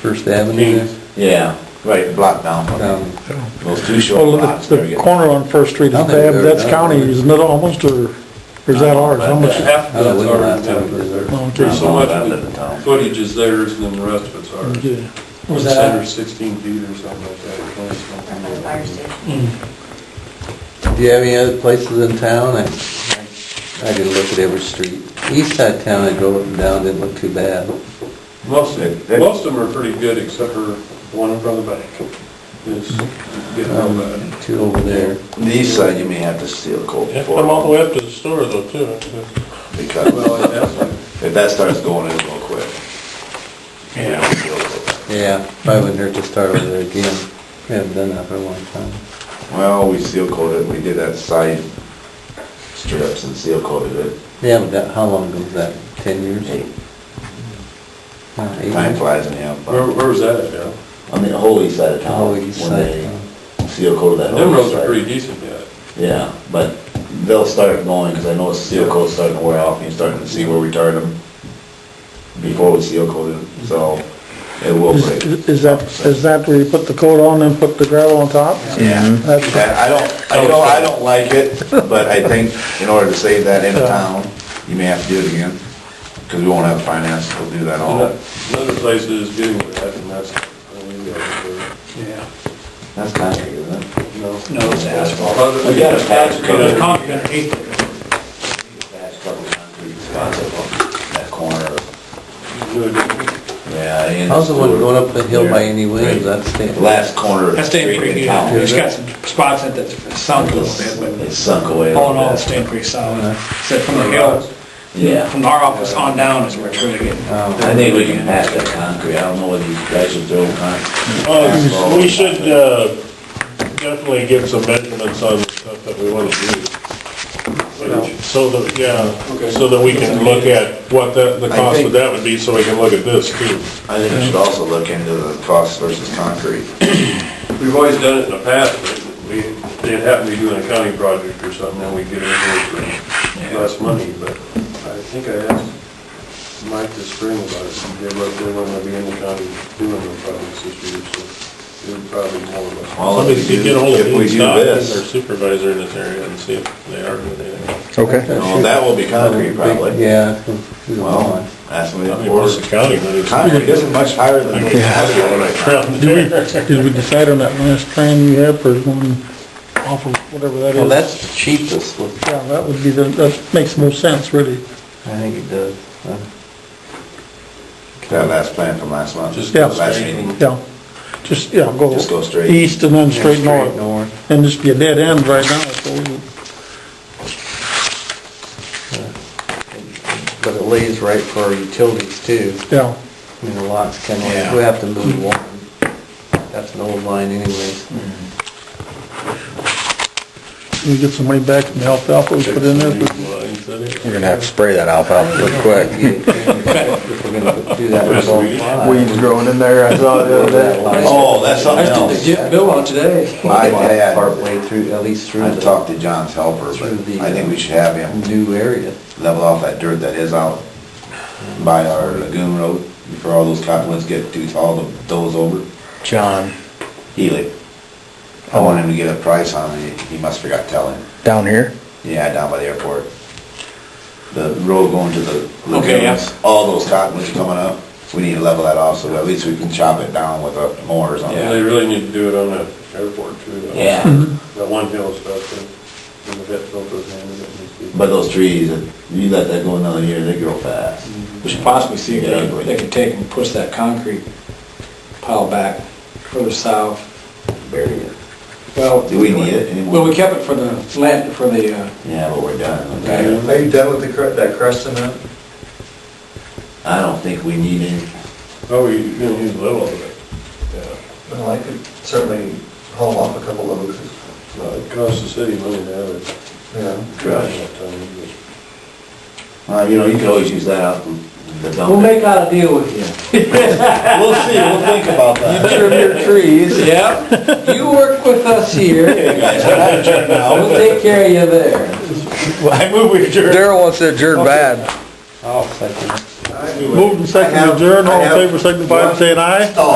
First Avenue Yeah, right, block down, there. Um, those two short Well, blocks, the, there the you go. corner on First Street is I think they're bad, but that's done. county, isn't it almost, or, or is that ours? How much? Half I don't of that's know ours, that half town of is it's there. ours. Oh, okay. There's so much I of live in town. the footage is theirs, and then the rest of it's ours. Yeah. Was The that- center's sixteen feet or something like that, or twenty from the something. fire station. Do you have any other places in town? I, I didn't look at every street. East side town, I drove up and down, didn't look too bad. Most, That- that- most of them are pretty good, except for one in front of the bank. It's getting real Um, bad. two over there. The east side, you may have to steal cold You have to come all the before, way up to the store though, too. because Well, that's like, if that starts going in real quick. Yeah. Yeah, probably wouldn't hurt to start over there again. We haven't done that for a long time. Well, we seal coated, we did that side strips and seal coated it. Yeah, but that, how long ago was that? Ten years? Hey, Uh, eight Time years? flies in the end. Where, where was that at, Joe? On the whole east side of town, Oh, east when side they town. seal coated that Them whole east roads are side. pretty decent yet. Yeah, but they'll start going, because I know the seal coat's starting to wear off, and you're starting to see where we tarred them before we seal coated, them, so it will break. Is is that, is that where you put the coat on and put the gravel on top? Yeah, That's- That- I don't, I know, I don't like it, but I think in order to save that in the town, you may have to do it again, because we won't have finance to do that all. Oh. Another place that is getting that, and that's, I mean, yeah, Yeah. That's concrete, isn't it? but, no. No, it's asphalt. Other- We got a patch It's cover. concrete underneath it. That's probably concrete spots up on that corner. Good. Yeah. and- How's the one going up the hill by any Williams? That's the- Last corner. That's staying pretty good. Town. It's got some spots in it that's sunk a little bit, It sunk away. but a all in little all, bit. it's staying pretty solid. Except from the hill, Yeah. from our office on down is where it's really getting. I think we can patch that concrete. I don't know whether you guys should throw concrete. Uh, we should, uh, definitely get some measurements on the stuff that we want to do. So that, yeah, so that we can look at what the, the I cost think- of that would be, so we can look at this too. I think we should also look into the cost versus concrete. We've always done it in the past, but we, it happened to be doing a county project or something, and we get it for less money, but I think I asked Mike this spring about it, and they were, they were gonna be in the county doing the projects this year, so it would probably be more or less. Well, Somebody if we could do- get ahold of if we Dean do Stock, this- their supervisor in this area, and see if they are doing anything. Okay. No, that will be concrete probably. Yeah. it's through the Well, lawn. that's when I mean, plus the we, county money. concrete isn't much higher than the Around Did there. we, did we decide on that last train we have for one off of whatever that is? Well, that's the cheapest one. Yeah, that would be the, that makes most sense, really. I think it does. Uh, That last plan from last month. Just Yeah. Last meeting. Yeah. Just, yeah, go. Just go straight. East and then straight Straight north. north. And just be a dead end right now, so. But it lays right for our utilities too. Yeah, I mean, the lots kind Yeah. of, we have to move one. That's an old line anyways. we get some money back from the alfalfa we put in there. but- We're gonna have to spray that alfalfa real quick. If we're gonna do that with all Weeds growing in there, I saw the other day. Oh, that's something else. Get Bill on today. I had, Partway through, at least through I the talked to John's helper, but I think we should have him new area. level off that dirt that is out by our lagoon road before all those cottonwoods get too tall to doze over. John, Healy. I want him to get a price on it. He must forgot telling. down here? Yeah, down by the airport. The road going to the Okay, yeah. lagoons, all those cottonwoods coming up. We need to level that off so at least we can chop it down with a mower or And something. they really need to do it on that airport too. though. Yeah, That one hill is about the, when the vet built those houses, it needs to be- but those trees, if you let that go another year, they grow fast. We should possibly see if they, they can take and push that concrete pile back further south. Bury it. Well, Do we need it well, anymore? we kept it for the land, for the, uh, Yeah, but we're done. Are you- Are you done with the, that crust cement? I don't think we need it. Oh, you, you know, he's little of it. Well, I could certainly haul off a couple of those, No, It costs the city money to have it. you know. Trash. Yeah, time, but- Uh, you know, you could always use that out in the dump. we'll make out a deal with you. We'll see, we'll think about that. trim your trees. Yep. You work with us here, we'll take care of you there. I move we adjourn. Daryl wants to adjourn bad. Oh, second. Moved and seconded, adjourned, all in favor, signify by saying aye.